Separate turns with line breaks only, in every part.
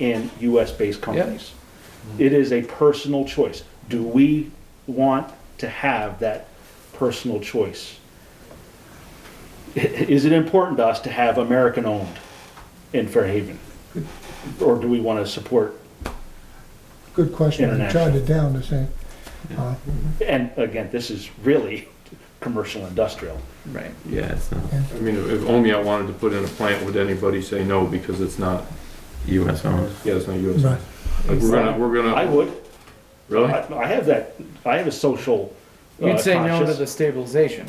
in US-based companies. It is a personal choice. Do we want to have that personal choice? Is it important to us to have American-owned in Fairhaven? Or do we want to support
Good question. I jotted
International.
it down to say, uh,
And again, this is really commercial industrial.
Right. Yeah, it's not
I mean, if only I wanted to put in a plant, would anybody say no because it's not,
US owned.
yeah, it's not US.
right,
Like, We're gonna, we're
I
gonna,
would,
really?
I I have that, I have a social uh,
You'd say no to
conscious-
the stabilization.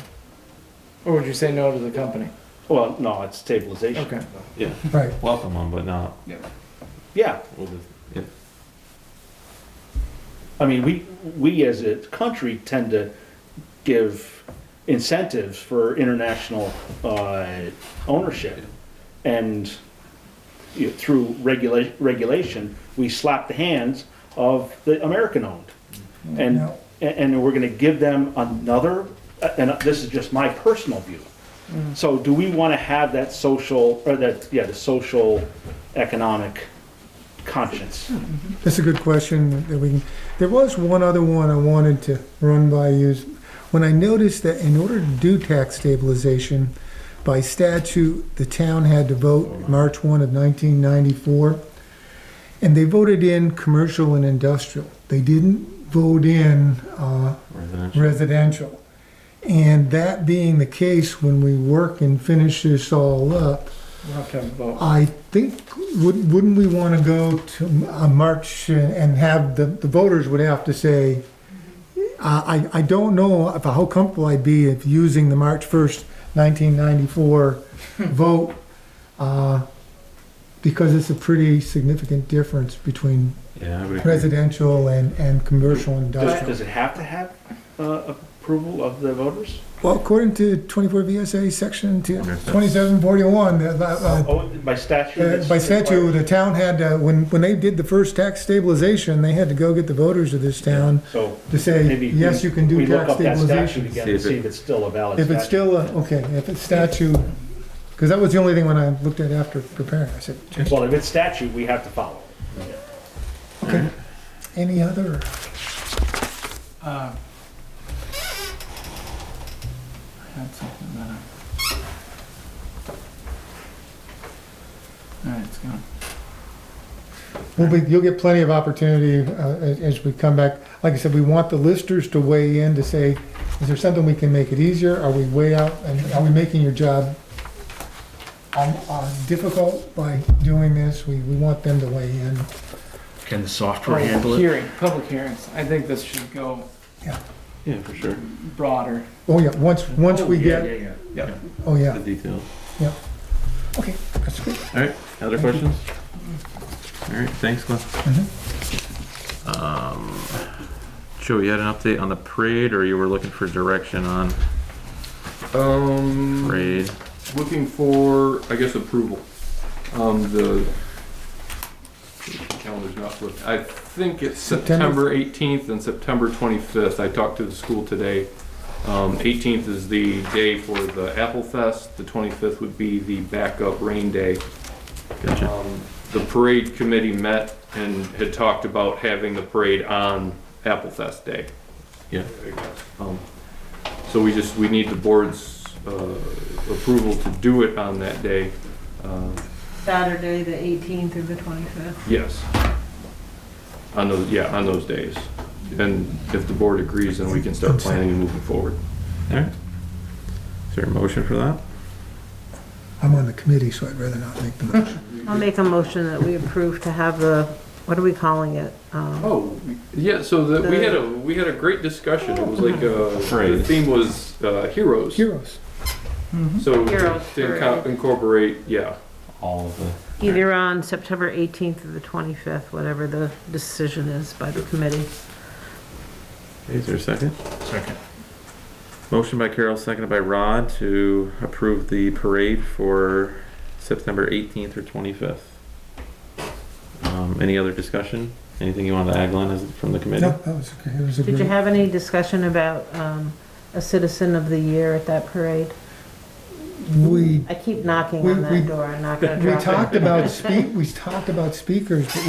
Or would you say no to the company?
Well, no, it's stabilization.
Okay.
right.
Welcome them, but not.
Yeah,
we'll just- yeah.
I mean, we, we as a country tend to give incentives for international uh, ownership. And you know, through regula- regulation, we slap the hands of the American-owned. And,
Now-
and- and we're gonna give them another, and this is just my personal view. So do we wanna have that social, or that, yeah, the social economic conscience?
That's a good question that we can, there was one other one I wanted to run by you. When I noticed that in order to do tax stabilization, by statute, the town had to vote March one of nineteen ninety-four. And they voted in commercial and industrial. They didn't vote in, uh,
Residential.
residential. And that being the case, when we work and finish this all up,
We'll have to have a vote.
I think, wouldn't, wouldn't we want to go to uh, March and have, the, the voters would have to say, I, I I don't know if, how comfortable I'd be if using the March 1st, 1994 vote, uh, because it's a pretty significant difference between
Yeah, I would agree.
residential and, and commercial and
Does,
industrial.
does it have to have uh, approval of the voters?
Well, according to 24 VSA Section two-
Wonder if that's-
2741, uh, uh,
Oh, by statute?
Uh,
it's
By statute,
required.
the town had, to- when, when they did the first tax stabilization, they had to go get the voters of this town
So
to say,
maybe.
uh, yes,
we-
you can do
We look
tax
up that statute
stabilization.
again
See
to
if it-
see if it's still a valid
If
statute.
it's still, a- okay, if it's statute, because that was the only thing when I looked at after preparing, I said,
Well, if it's statute, we have to follow.
okay, any other?
Uh, I had something that I. All right, it's gone.
We'll be, you'll get plenty of opportunity uh, as as we come back. Like I said, we want the listers to weigh in to say, is there something we can make it easier? Are we way out, and are we making your job um, uh, difficult by doing this? We, we want them to weigh in.
Can the software
Oh,
handle it?
Hearing, public hearings. I think this should go
Yeah, for sure.
broader.
Oh, yeah, once, once we
Yeah,
get,
yeah, yeah.
oh,
The
yeah,
details.
okay, that's good.
All right. Other questions? All right. Thanks, Glenn.
Mhm.
Um, Joe, you had an update on the parade, or you were looking for direction on
Um.
parade?
looking for, I guess, approval. Um, the calendar's not working. I think it's
September-
September eighteenth and September twenty-fifth. I talked to the school today. Um, eighteenth is the day for the Apple Fest. The twenty-fifth would be the backup rain day.
Gotcha.
Um, The parade committee met and had talked about having the parade on Apple Fest Day.
Yeah.
Um, So we just, we need the board's uh, approval to do it on that day. Uh,
Saturday, the 18th through the 25th.
Yes. On those, yeah, on those days. And if the board agrees, then we can start planning and moving forward.
All right. Is there a motion for that?
I'm on the committee, so I'd rather not make the motion.
I'll make a motion that we approve to have the, what are we calling it? Um,
Oh, yeah, so that, we had a, we had a great discussion. It was like, uh, the
Parade.
theme was uh, heroes.
Heroes,
So
Heroes
to
for-
inco- incorporate, yeah,
All of the.
Either on September 18th or the 25th, whatever the decision is by the committee.
Is there a second?
Second.
Motion by Carol, seconded by Rod to approve the parade for September 18th or 25th. Um, any other discussion? Anything you want to add, Glenn, as, from the committee?
no, that was, okay, it was a
Did you
great,
have any discussion about um, a citizen of the year at that parade?
we,
I keep knocking
We-
on
we-
that door, I'm not gonna
we
drop it.
talked about speak, we talked about speakers, but